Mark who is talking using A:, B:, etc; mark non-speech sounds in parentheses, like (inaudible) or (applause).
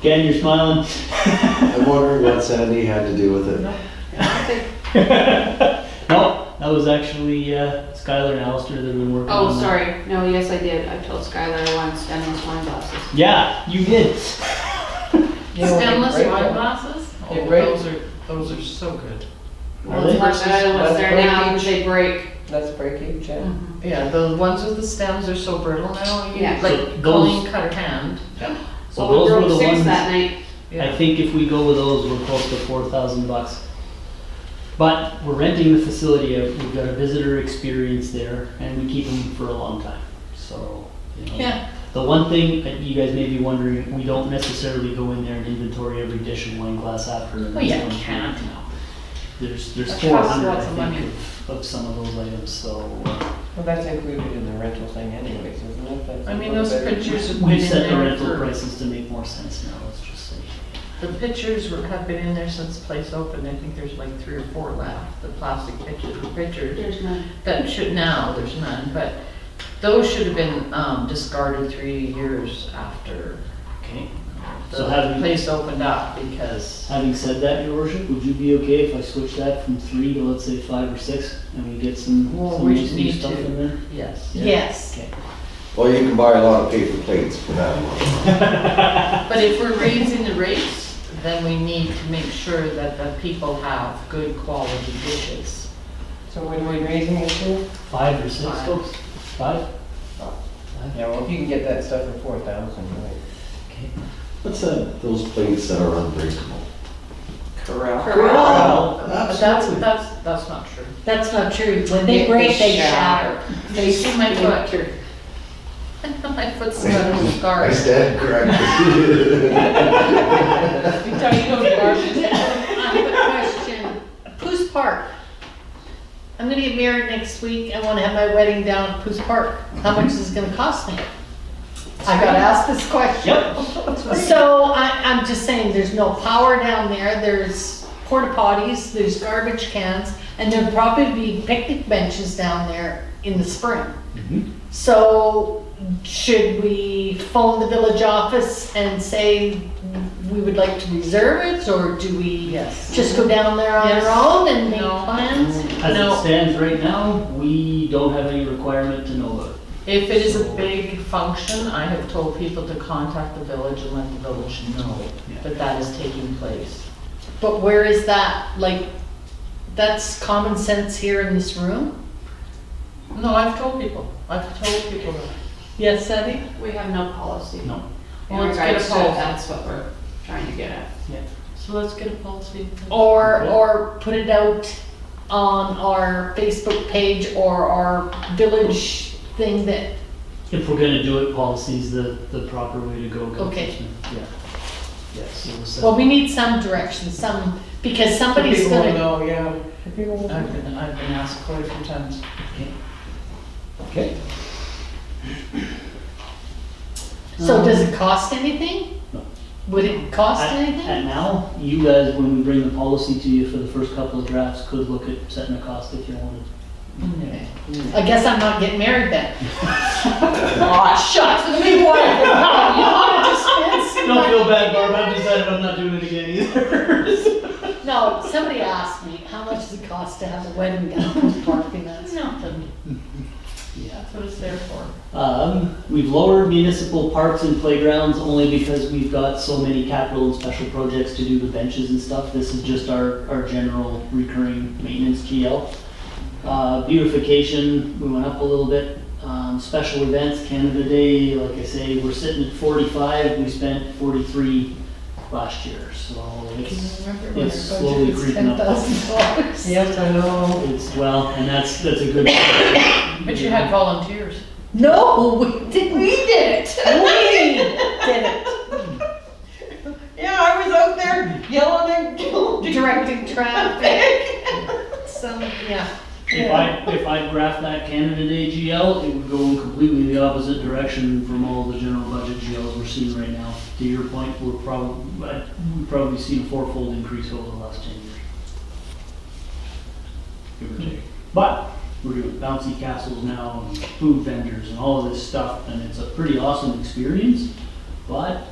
A: Ken, you're smiling.
B: I'm wondering what Sandy had to do with it.
A: No, that was actually uh, Skylar and Alistair that have been working on
C: (laughs) Oh,
A: that.
C: sorry, no, yes, I did, I told Skylar I wanted stainless wine glasses.
A: Yeah, you did.
D: You know,
C: Stainless
D: they're great,
C: wine
D: though.
C: glasses?
D: They're
E: Oh,
D: great.
E: those are, those are so good.
C: Well, it's much better than what's
D: That's
C: there now, because
D: breakage.
C: they break.
D: That's breakage, yeah.
E: Yeah, the ones with the stems are so brittle now, you
C: Yeah.
A: So those-
E: like Colleen cut her hand.
A: Well,
C: So we
A: those were the
C: broke six
A: ones-
C: that night.
A: I
E: Yeah,
A: think if we go with those, we're close to four thousand bucks. But we're renting the facility out, we've got a visitor experience there, and we keep them for a long time, so, you know.
E: Yeah.
A: The one thing that you guys may be wondering, we don't necessarily go in there and inventory every dish and wine glass after. the
E: well,
A: next
E: yeah,
A: one.
E: you can't.
A: There's, there's
E: That
A: four
E: costs
A: hundred,
E: lots of
A: I
E: money.
A: think, of, of some of those items, so. uh,
D: Well, that's included in the rental thing anyways, isn't it? That's
E: I mean,
D: a little
E: those
D: better.
E: pictures have been
A: We've
E: in
A: set the
E: there
A: rental
E: for,
A: prices to make more sense now, let's just say.
E: the pictures were- have been in there since the place opened. I think there's like three or four left, the plastic pictures, pictures.
C: There's none.
E: That should, now, there's none, but those should have been um, discarded three years after
A: Okay. So
E: the
A: having-
E: place opened up because,
A: Having said that, your worship, would you be okay if I switch that from three to let's say five or six, and we get some,
E: Well,
A: some
E: we
A: nice new
E: need
A: stuff
E: to-
A: in there?
E: yes.
A: Yes.
B: Well, you can buy a lot of paper plates for that one.
E: But if we're raising the rates, then we need to make sure that the people have good quality dishes.
D: So what are we raising it to?
A: Five or six,
E: Five.
A: folks? Five?
D: Yeah, well, if you can get that stuff for four thousand, right?
A: Okay.
B: What's that, those plates that are unbreakable?
D: Corral.
C: Corral.
E: But that's, that's, that's not true.
F: That's not true. When they break, they shatter.
E: They see my foot. (laughs) My
C: (laughs)
E: foot's got a little scar.
B: I stand (laughs) corrected.
D: You tell you don't
F: (laughs)
D: garbage.
F: I have a question. Poos Park. I'm gonna get married next week. I wanna have my wedding down at Poos Park. How much is it gonna cost me? I got asked this question.
A: Yep,
F: (laughs) So I, I'm just saying, there's no power down there, there's porta potties, there's garbage cans, and there'll probably be picnic benches down there in the spring.
A: Mhm.
F: So should we phone the village office and say we would like to reserve it, or do we
E: Yes.
F: just go down there on
E: Yes.
F: our own and make
E: No.
F: plans?
A: as it
E: No.
A: stands right now, we don't have any requirement to know about it.
E: If it is a big function, I have told people to contact the village and let the village know
A: Yeah.
E: that that is taking place.
F: But where is that, like, that's common sense here in this room?
E: No, I've told people, I've told people that.
F: Yes, Sandy?
C: We have no policy.
A: No.
C: In
E: Well, let's get a
C: regards to
E: poll.
C: it, that's what we're trying to get at.
E: So let's get a policy.
F: Or,
A: Yeah.
F: or put it out on our Facebook page or our village thing that,
A: If we're gonna do it, policy's the, the proper way to go.
F: Okay.
A: Councilman. Yeah. Yes, it was, uh,
F: well, we need some direction, some, because somebody's
E: People will
F: gonna,
E: know, yeah.
D: People will-
E: I've been, I've been asked quite a few times.
A: Okay.
F: so does it cost anything?
A: No.
F: Would it cost
A: At- At
F: anything?
A: now, you guys, when we bring the policy to you for the first couple of drafts, could look at setting a cost if you wanted.
E: Okay.
F: I guess I'm not getting married then.
E: Aw,
F: (laughs)
E: shucks, let me one.
A: Don't feel bad, Barb, I've decided I'm not doing it again either.
F: No, somebody asked me, how much does it cost to have a wedding down in Park and that's nothing.
A: Yeah.
E: That's what it's there for.
A: Um, we've lowered municipal parks and playgrounds only because we've got so many capital and special projects to do the benches and stuff. This is just our, our general recurring maintenance GL. Uh, beautification, we went up a little bit. Um, special events, Canada Day, like I say, we're sitting at forty-five, we spent forty-three last year, so it's, it's slowly creeping
F: Ten
A: up.
F: thousand dollars.
D: Yes, I know.
A: It's, well, and that's, that's a good.
E: But you had volunteers.
F: No, we didn't. We did it. We did it.
D: Yeah, I was out there yelling and yelling.
F: (laughs) directing traffic. Some, yeah.
A: If I, if I graphed that Canada Day GL, it would go in completely the opposite direction from all the general budget GLs we're seeing right now. To your point, we're probably, we've probably seen a fourfold increase over the last ten years. Give or take. But we're doing bouncy castles now and food vendors and all of this stuff, and it's a pretty awesome experience. But